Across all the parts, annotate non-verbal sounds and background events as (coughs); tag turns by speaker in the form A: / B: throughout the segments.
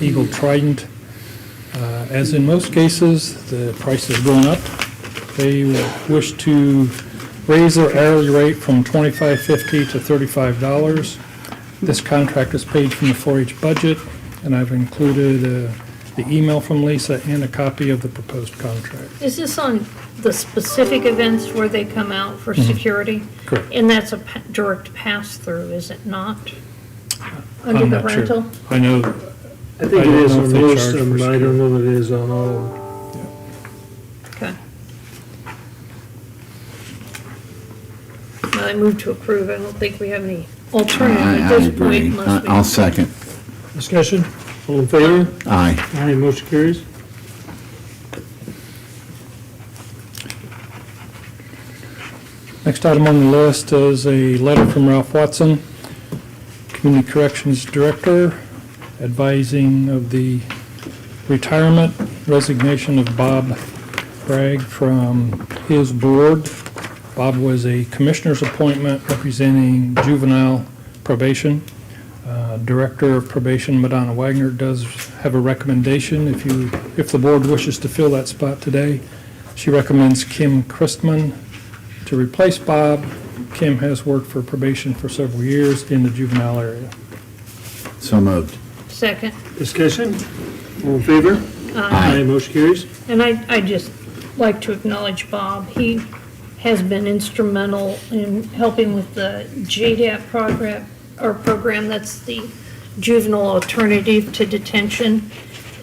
A: Eagle Trident. Uh, As in most cases, the price has gone up. They wish to raise their hourly rate from $25.50 to $35. This contract is paid from the 4-H budget, and I've included uh, the email from Lisa and a copy of the proposed contract.
B: Is this on the specific events where they come out for security?
A: Mm-hmm. Correct.
B: And that's a pa- direct pass-through, is it not? Under
A: I'm
B: the
A: not sure.
B: rental?
A: I know,
C: I think
A: I
C: it
A: don't
C: is
A: know if
C: on
A: they
C: most
A: charge
C: of them,
A: for
C: but I don't know that it is on all of them.
B: Okay. Well, I move to approve. I don't think we have any alternative
D: I,
B: at
D: I
B: this point
D: agree.
B: unless
D: I-
B: we.
D: I'll second.
C: Discussion, all in favor?
D: Aye.
C: Aye, motion carries.
A: Next item on the list is a letter from Ralph Watson, Community Corrections Director, advising of the retirement, resignation of Bob Bragg from his board. Bob was a commissioner's appointment representing juvenile probation. Uh, Director of Probation, Madonna Wagner, does have a recommendation if you, if the board wishes to fill that spot today. She recommends Kim Christman to replace Bob. Kim has worked for probation for several years in the juvenile area.
D: So moved.
B: Second.
C: Discussion, all in favor? Aye, motion carries.
B: And I, I just like to acknowledge Bob. He has been instrumental in helping with the JDAP program, or program, that's the juvenile alternative to detention.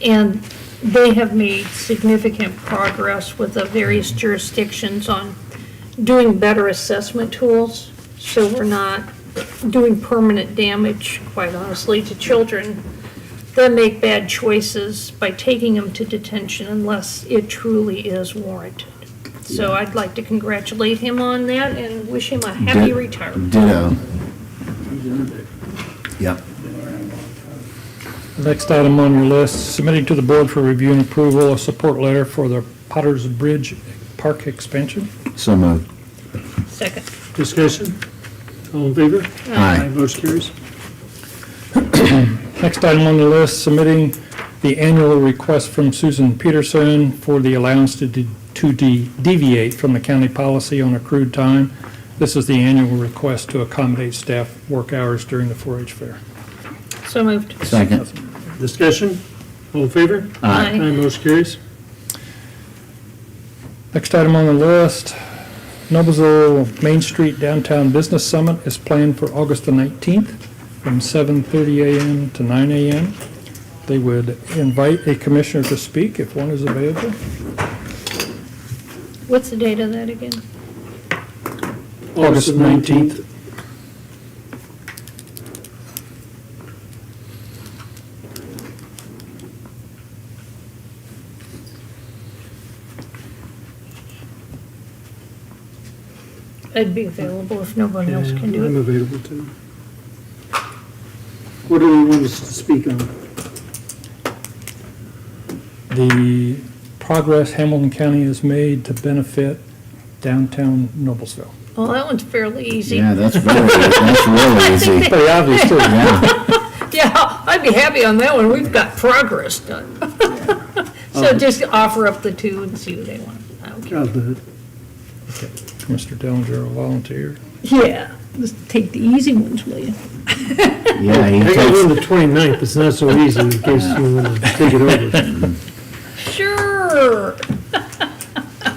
B: And they have made significant progress with the various jurisdictions on doing better assessment tools, so we're not doing permanent damage, quite honestly, to children that make bad choices by taking them to detention unless it truly is warranted. So I'd like to congratulate him on that and wish him a happy
D: Did-
B: retirement.
D: Ditto. Yep.
A: The Next item on your list, submitting to the board for review and approval, a support letter for the Potter's Bridge Park expansion.
D: So moved.
B: Second.
C: Discussion, all in favor?
D: Aye.
C: motion carries.
A: (coughs) Next item on the list, submitting the annual request from Susan Peterson for the allowance to de- to de- deviate from the county policy on accrued time. This is the annual request to accommodate staff work hours during the 4-H fair.
B: So moved.
D: Second.
C: Discussion, all in favor?
B: Aye.
C: Aye, motion carries.
A: Next item on the list, Noblesville Main Street Downtown Business Summit is planned for August the 19th from 7:30 a.m. to 9 a.m. They would invite a commissioner to speak if one is available.
B: What's the date of that again?
A: August
C: the
A: 19th.
B: I'd be available if nobody else can
C: Yeah, I'm
B: do it.
C: available too. What do we want us to speak on?
A: The progress Hamilton County has made to benefit downtown Noblesville.
B: Well, that one's fairly easy.
D: Yeah, that's very,
B: (laughs)
D: that's really easy.
A: Pretty obvious, too.
D: Yeah.
B: Yeah, I'd be happy on that one. We've got progress done. (laughs) So just offer up the two and see what they want. I don't care.
C: I'll do it.
A: Mr. Dillinger, a volunteer.
B: Yeah, just take the easy ones, will you?
D: Yeah, he
C: I got
D: takes-
C: one the 29th, it's not so easy in case you want to take it over.
B: Sure,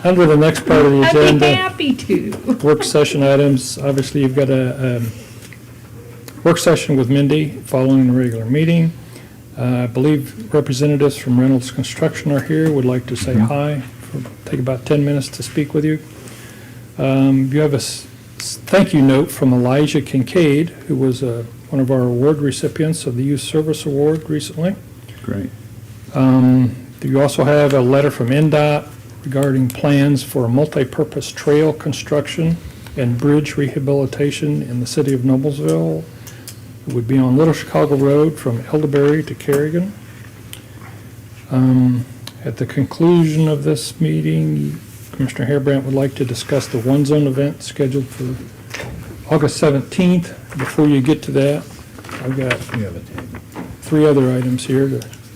A: Under the next part of the
B: I'd
A: agenda.
B: be happy to.
A: work session items, obviously you've got a, um, work session with Mindy following the regular meeting. Uh, I believe representatives from Reynolds Construction are here, would like to say hi, take about ten minutes to speak with you. Um, you have a s- s- thank you note from Elijah Kincaid, who was, uh, one of our award recipients of the Youth Service Award recently.
D: Great.
A: Um, You also have a letter from NDOT regarding plans for a multipurpose trail construction and bridge rehabilitation in the city of Noblesville. It would be on Little Chicago Road from Elderberry to Carrigan. Um, At the conclusion of this meeting, Commissioner Harebrant would like to discuss the One Zone event scheduled for August 17th. Before you get to that, I've got three other items here to